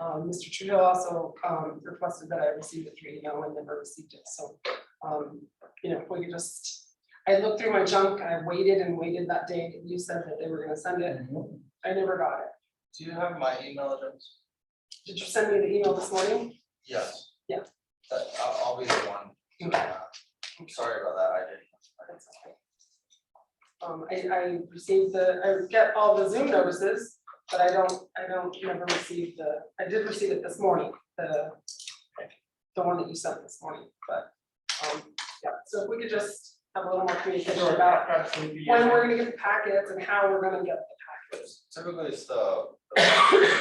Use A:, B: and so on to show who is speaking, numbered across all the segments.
A: Um, Mr. Trudeau also, um, requested that I receive the three email and never received it, so, um, you know, we could just. I looked through my junk, I waited and waited that day, you said that they were gonna send it, I never got it.
B: Do you have my email address?
A: Did you send me the email this morning?
B: Yes.
A: Yeah.
B: That, I'll, I'll be the one. doing that. I'm sorry about that, I didn't. I
A: That's okay. Um, I, I received the, I get all the Zoom notices, but I don't, I don't never receive the, I did receive it this morning, the. The one that you sent this morning, but, um, yeah, so if we could just have a little more communication about when we're gonna get the packets and how we're gonna get the
B: didn't.
A: packets.
B: Typically it's the the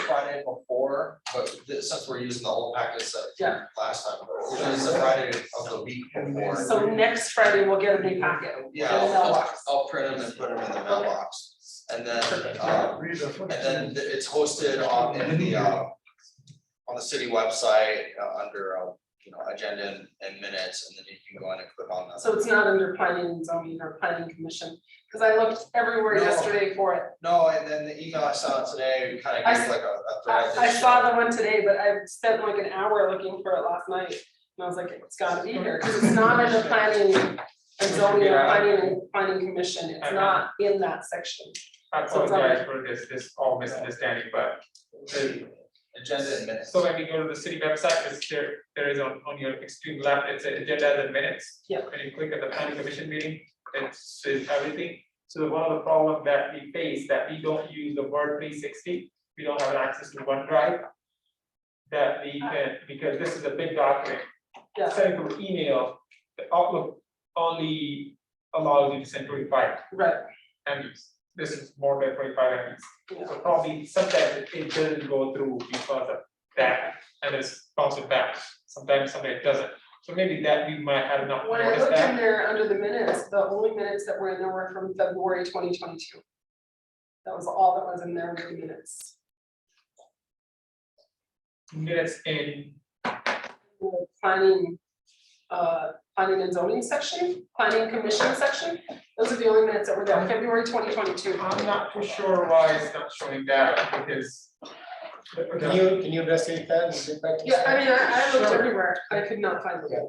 B: Friday before, but this, since we're using the whole package that we
A: Yeah.
B: last time, usually it's the Friday of the week before.
A: So next Friday, we'll get a new packet.
B: Yeah,
A: in the
B: I'll,
A: mailbox.
B: I'll print them and put them in the mailbox. And then,
A: Uh,
B: um,
C: And
B: And then th- it's hosted on in the uh. On the city website, uh, under uh, you know, agenda and- and minutes, and then you can go in and click on that.
A: So it's not under planning and zoning or planning commission, because I looked everywhere
B: No.
A: yesterday for it.
B: No, and then the email I saw today, kind of
A: I
B: gives like a a
A: I
B: thread.
A: I
B: that
A: saw
B: showed-
A: the one today, but I spent like an hour looking for it last night, and I was like, it's gotta be here, because it's not in the planning. And zoning or planning and planning commission, it's not in that section,
C: I
A: So it's all right.
C: apologize for this, this all misunderstanding, but the,
B: Agenda and minutes.
C: so when we go to the city website, it's there, there is on, on your extreme left, it's a agenda and minutes.
A: Yeah.
C: When you click at the planning commission meeting, it says everything. So one of the problem that we face, that we don't use the word three sixty, we don't have access to OneDrive. That we can, because this is a big document,
A: yeah,
C: sending from email, the Outlook only allows you to send twenty-five
A: right,
C: MBs. This is more than twenty-five MBs. So probably sometimes it- it doesn't go through because of that, and it's bouncing back. Sometimes somebody doesn't. So maybe that we might have not
A: when I
C: noticed
A: looked in
C: that.
A: there under the minutes, the only minutes that were in there were from February twenty twenty-two. That was all that was in there with the minutes,
C: Minutes in,
A: the planning, uh, planning and zoning section, planning commission section, those are the only minutes that were there, February twenty twenty-two.
C: I'm not too sure why it's not showing that because.
D: Can you, can you investigate that and get back to us?
A: Yeah, I mean, I, I looked
C: Sure.
A: everywhere, but I could not find
D: Yeah,
A: it,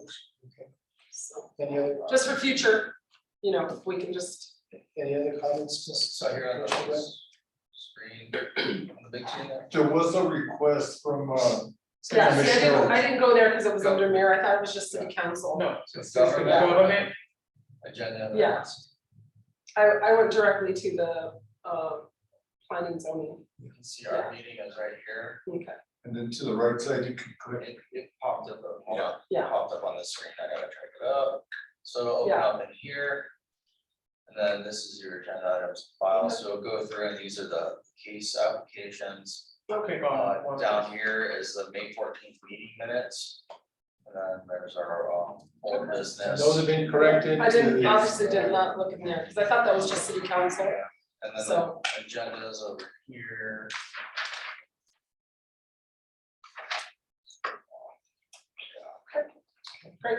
D: okay.
A: so,
D: Any other, uh,
A: just for future, you know, if we can just,
D: any other comments, just
B: So here on the screen, on the big screen there.
E: There was a request from, uh,
A: yeah,
D: City
A: see, I didn't,
D: Commissioner,
A: I didn't go there because it was under mayor, I thought it was just city council.
C: No,
B: So it's
C: it's the government,
B: Agenda and
A: Yeah.
B: minutes.
A: I, I went directly to the, uh, planning zoning,
B: You can see our meeting is right here.
A: okay,
E: and then to the right side, you can click,
B: It it popped up, uh, hold on.
A: Yeah.
B: Popped up on the screen, I gotta track it up, so open
A: Yeah.
B: up in here. And then this is your agenda items file, so go through and these are the case applications.
C: click
B: Uh,
C: on Oh, one.
B: down here is the May fourteenth meeting minutes. And then there's our um, old business.
D: those have been corrected.
A: I didn't,
D: to-
A: obviously did not look in there, because I thought that was just city council,
B: And then the
A: so,
B: agendas over here.
A: great,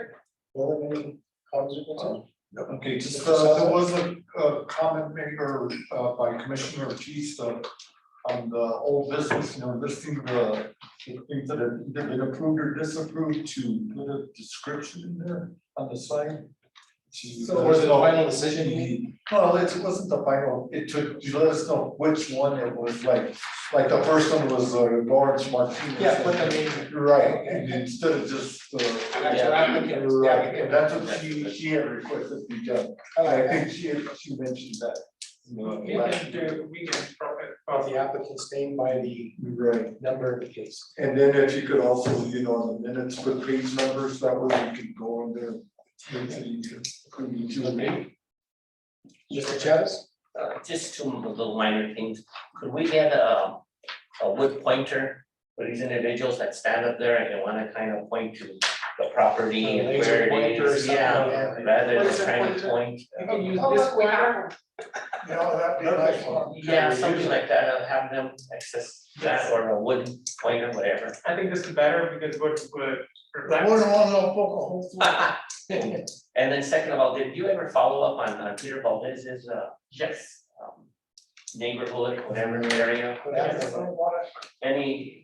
D: Well, then any comments or concerns?
E: okay, just, uh, there was a, a comment made or, uh, by Commissioner Batista on the old business, you know, listing the, the things that have either been approved or disapproved to put a description in there on the sign. To-
D: So was it a final decision? you mean?
E: Well, it wasn't the final, it took, you let us know which one it was like, like the first one was uh, Lawrence Martinez.
D: Yeah, but I mean,
E: Right, and instead of just, uh.
D: actual applicant, the
E: Right,
D: applicant.
E: and that's what she, she had requested to be done, and
D: I
E: I
D: like that.
E: think she, she mentioned that. you know,
C: We
E: last
C: can
E: year.
C: do, we can uh, probably,
D: Of the applicant's name by the
E: Right,
D: number of the case.
E: and then if you could also, you know, on the minutes, put page numbers, that way you can go on there. Makes it easier, could be two
D: Mr. Chavez?
F: Uh, just two little minor things, could we get a, a wood pointer for these individuals that stand up there and wanna kind of point to the property and
D: Laser
F: where it
D: pointer or
F: is,
D: something
F: yeah.
D: like that.
F: Rather than
A: Laser
F: trying
A: pointer.
F: to point,
C: you can use
A: oh,
C: this
A: look, we
C: one,
A: have them,
E: You know, that'd be nice one.
F: uh, yeah, something like that, I'll have them access that or a wooden pointer, whatever.
C: I think this is better because what would reflect.
F: And then second of all, did you ever follow up on uh, Peter Valdez's uh,
C: Yes.
F: um, neighborhood, whatever area?
D: What happened?
F: Any